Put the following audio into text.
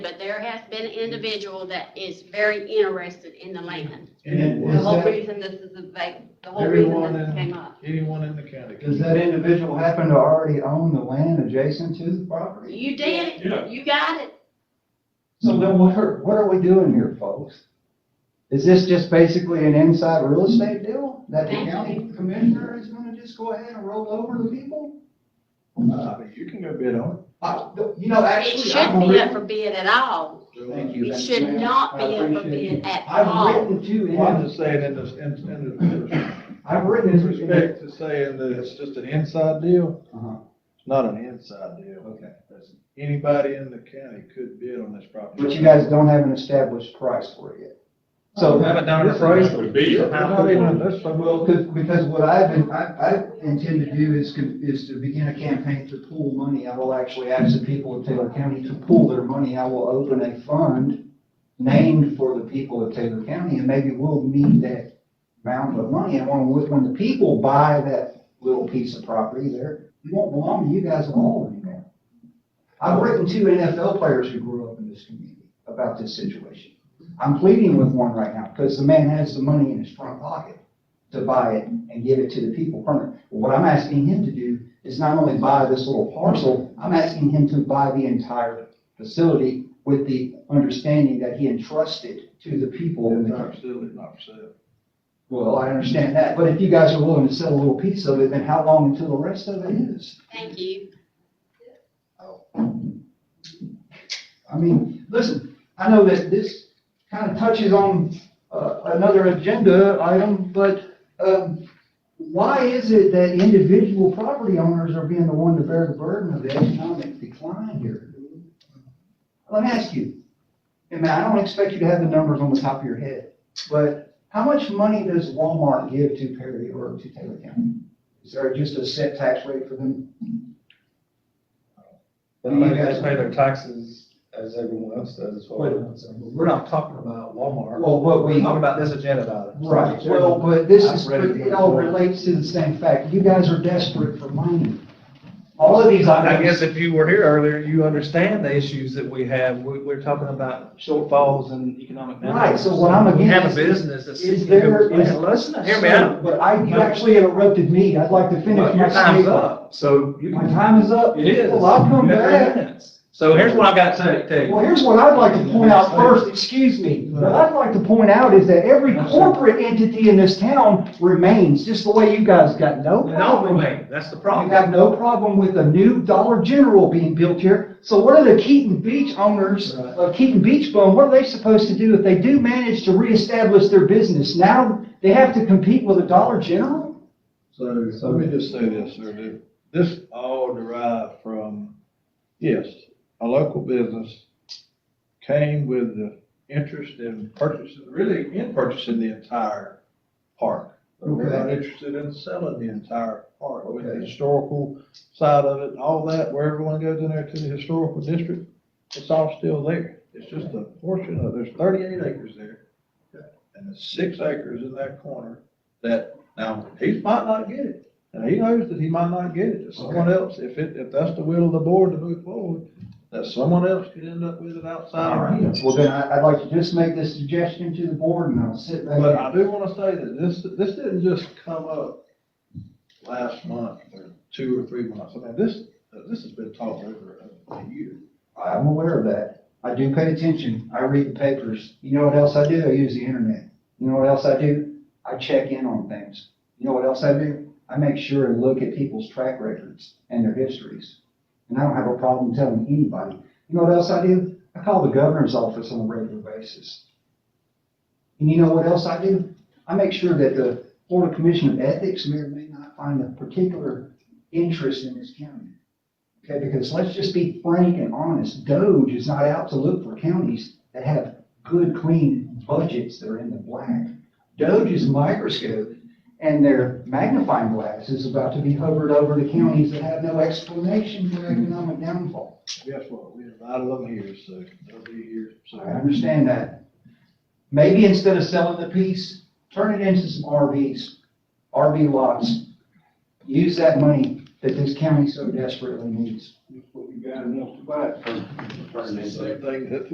but there has been an individual that is very interested in the land. And The is whole that, reason this is a vac, the whole reason Everyone this in- came up. anyone in the county? Does that individual happen to already own the land adjacent to the property? You did Yeah. it, you got it. So then what are, what are we doing here, folks? Is this just basically an inside real estate deal that the county commissioner is gonna just go ahead and roll over the people? Uh, but you can go bid on I- You know, It actually, I've shouldn't be up written. for bid at all. it. Thank you. It that's should fair. not I be up for appreciate bid you. at I've all. written to Well, I'm him, just saying in this, in, in this, I've written with his respect respect. to saying that it's just an inside deal, Uh-huh, it's not an inside deal. Okay. That's- Anybody in the county could bid on this property. But you guys don't have an established price for it yet. So. Have a dollar this- price. That would be it. It's not even- that's what- Well, because, because what I've been, I, I intend to do is, con- is to begin a campaign to pool money. I will actually ask the people of Taylor County to pool their money. I will open a fund named for the people of Taylor County, and maybe we'll need that amount of money. And when, when the people buy that little piece of property there, it won't belong to you guys at all anymore. I've written two NFL players who grew up in this community about this situation. I'm pleading with one right now, because the man has the money in his front pocket to buy it and give it to the people permanent. What I'm asking him to do is not only buy this little parcel, I'm asking him to buy the entire facility with the understanding that he entrusted to the people. in It's the not county. absolutely not for sale. Well, I understand that, but if you guys are willing to sell a little piece of it, then how long until the rest of it is? Thank you. I mean, listen, I know that this kind of touches on uh, another agenda item, but um, why is it that individual property owners are being the one to bear the burden of the economic decline here? Let me ask you, and man, I don't expect you to have the numbers on the top of your head, but how much money does Walmart give to Perry or to Taylor County? Is there just a set tax rate for them? They pay they pay their taxes as everyone else does as Wait a well. minute, sir. we're not talking about Walmart, Well, what we're we, talking about this agenda item. Right, well, but this is, I've but read it it all before. relates to the same fact. You guys are desperate for money. All of these I guess items, if you were here earlier, you understand the issues that we have, we, we're talking about shortfalls and economic. Right, so what I'm We have a against business that's. is there- Hey, Listen, hear me out. but I, you actually interrupted me. I'd like to finish Well, my Your time's statement. up, so you My can. time is up. It is. Well, I'll come You have three back. minutes. So here's what I've got to tell you. Well, here's what I'd like to point out first, excuse me. What I'd like to point out is that every corporate entity in this town remains, just the way you guys got no They problem. don't remain, that's the You problem. have no problem with a new Dollar General being built here. So what are the Keaton Beach owners Right. of Keaton Beach Bone, what are they supposed to do if they do manage to reestablish their business? Now they have to compete with a Dollar General? So let me just say this, sir, that this all derived from, yes, a local business came with the interest in purchasing, really in purchasing the entire park. But We're not interested in selling the entire park with the Okay. historical side of it and all that, where everyone goes in there to the historical district, it's all still there. It's just a portion of, there's thirty-eight acres there, and there's six acres in that corner that, now, he might not get it. And he knows that he might not get it, If someone else, if it, if that's the will of the board to move forward, that someone else could end up with it outside of him. Well, then I- I'd like to just make this suggestion to the board and I'll sit back. But down. I do wanna say that this, this didn't just come up last month or two or three months. I mean, this, this has been talked over a year. I'm aware of that. I do pay attention. I read the papers. You know what else I do? I use the internet. You know what else I do? I check in on things. You know what else I do? I make sure and look at people's track records and their histories. And I don't have a problem telling anybody. You know what else I do? I call the governor's office on a regular basis. And you know what else I do? I make sure that the Florida Commission of Ethics may or may not find a particular interest in this county. Okay, because let's just be frank and honest, Doge is not out to look for counties that have good, clean budgets that are in the black. Doge's microscope and their magnifying glass is about to be hovered over to counties that have no explanation for economic downfall. Guess what? We invited them here, so they'll be here. So I understand that. Maybe instead of selling the piece, turn it into some RVs, RV lots. Use that money that this county so desperately needs. What we got enough to buy. Same thing that